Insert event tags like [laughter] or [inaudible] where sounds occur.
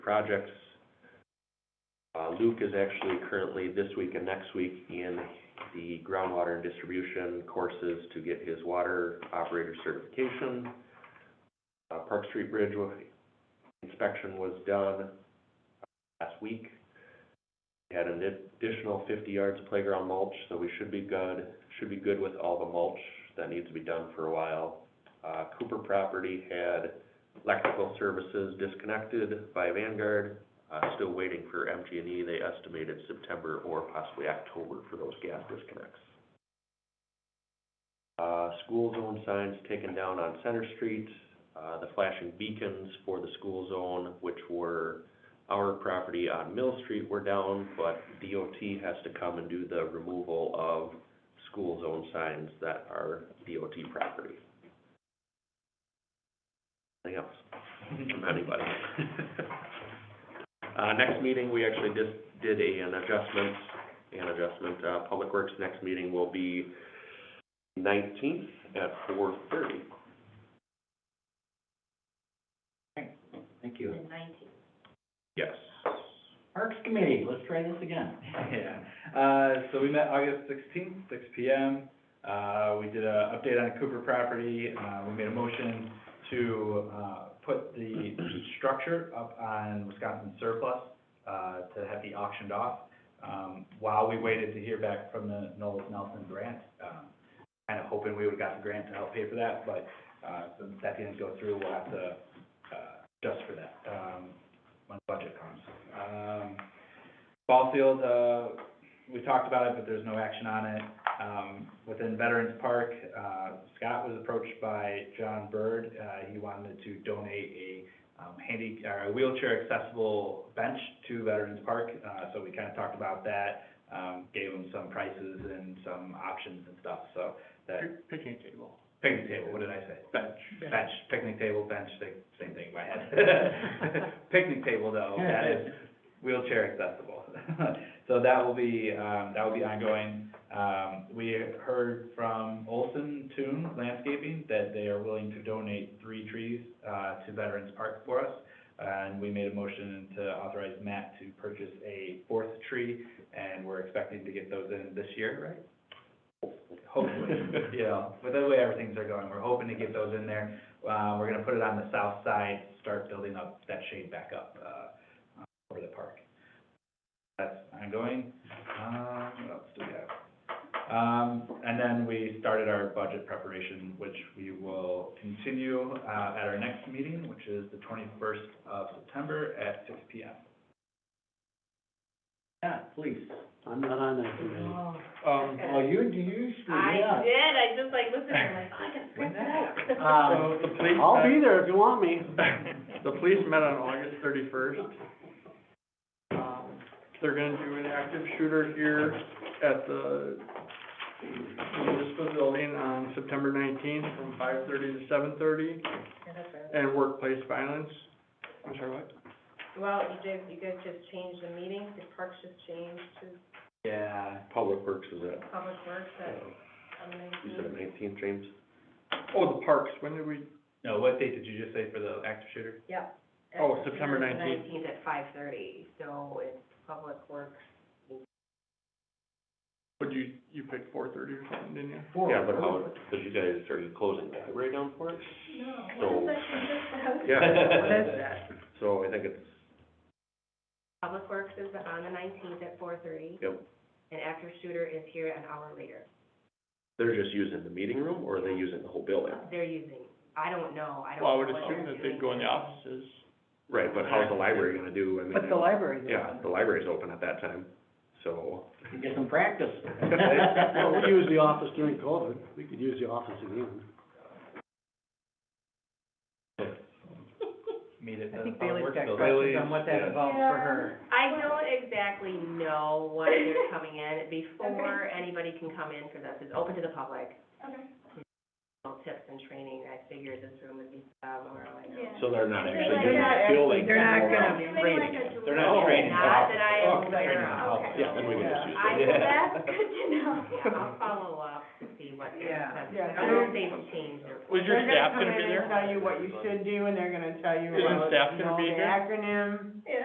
projects. Uh, Luke is actually currently this week and next week in the groundwater and distribution courses to get his water operator certification. Uh, Park Street Bridge wa- inspection was done uh, last week. We Had an additional fifty yards of playground mulch, so we should be good, should be good with all the mulch that needs to be done for a while. Uh, Cooper property had electrical services disconnected by Vanguard. Uh, still waiting for MG&E. E. They estimated September or possibly October for those gas disconnects. Uh, school zone signs taken down on Center Street. Uh, the flashing beacons for the school zone, which were our property on Mill Street, were down, but DOT has to come and do the removal of school zone signs that are DOT property. Anything else? from anybody. [laughs] Uh, next meeting, we actually just did a, an adjustment, an adjustment, uh, Public Works, next meeting will be nineteenth at four thirty. Thank you. Yes. Parks Committee, let's try this again. [laughs] Yeah, uh, so we met August sixteenth, six P M. Uh, we did a update on Cooper property, uh, we made a motion to, uh, put the structure up on Wisconsin surplus, uh, to have be auctioned off, um, while we waited to hear back from the Knowles Nelson grant. Um, Kind of hoping we would've got the grant to help pay for that, but, uh, since that didn't go through, we'll have to, uh, adjust for that, um, when the budget comes. Um, Ball field, uh, we talked about it, but there's no action on it. Um, within Veterans Park, uh, Scott was approached by John Bird. Uh, he wanted to donate a, um, handy, or a wheelchair accessible bench to Veterans Park. Uh, so we kind of talked about that, um, gave him some prices and some options and stuff, so that. Picnic table. Picnic table, what did I say? Bench. Bench, picnic table, bench, same, same thing in my head. [laughs] Picnic table though, that is wheelchair accessible. [laughs] So that will be, um, that will be ongoing. Um, we heard from Olson Toon Landscaping that they are willing to donate three trees, uh, to Veterans Park for us. And we made a motion to authorize Matt to purchase a fourth tree, and we're expecting to get those in this year, right? hopefully, you know, with the way everything's are going, we're hoping to get those in there. Uh, we're gonna put it on the south side, start building up that shade back up, uh, for the park. That's ongoing. Um, what else do we have? Um, and then we started our budget preparation, which we will continue, uh, at our next meeting, which is the twenty-first of September at six P M. Yeah, please. I'm not on that committee. Oh, Um, okay. Well, you, you screwed me I up. did, I just like listened, I'm like, oh, I can print that [laughs] out. Um, the police. I'll be there if you want me. The police met on August thirty-first. Um, They're gonna do an active shooter here at the municipal building on September nineteenth from five thirty to seven thirty, Yeah, that's right. and workplace violence. I'm sorry, what? Well, you did, you guys just changed the meeting, the parks just changed to [laughs] Yeah, Public Works is at, public works at, um, you said nineteenth, James? Oh, the parks, when did we, no, what date did you just say for the active shooter? yep. Oh, September 19th. Nineteenth at five thirty, so it's public works. would you, you picked four thirty or something, didn't you? Four. Yeah, but how, because you guys, are you closing the library down for it? No, So- that? [laughs] Yeah. What is that? So I think it's, Public works is on the nineteenth at four thirty, yep, and after shooter is here an hour later. they're just using the meeting room or are they using the whole building? They're using, I don't know, I don't. Well, I would know what assume they're that they'd doing. go in the offices. Right, but how's the library gonna do? I mean, But the library's Yeah, open. the library's open at that time, so. Get some [laughs] practice. Well, we used the office during COVID, we could use the office again. Meet at the I think public Bailey's Oh, works got building. questions on what that yeah. involves for her. I don't exactly know what they're [laughs] coming in before anybody can come in for this. It's open to the public. Okay. Little Tips and training, I figure this room would be, um, around. Yeah. So they're not actually They're doing not the actually- building. they're not anymore. gonna- It's like Rating a They're not duel. Oh, training. Not that I Oh, they're am aware training of. the public. Okay. Yeah, then we can just use it. I, Yeah. that's good to know. Yeah, Yeah. I'll follow up to see what not gonna, Yeah. that's, Yeah, I don't think they've changed their. Was your staff gonna be They're there? gonna come in and tell you what you should do, and they're gonna tell you Isn't about, staff you gonna be know, the here? acronym.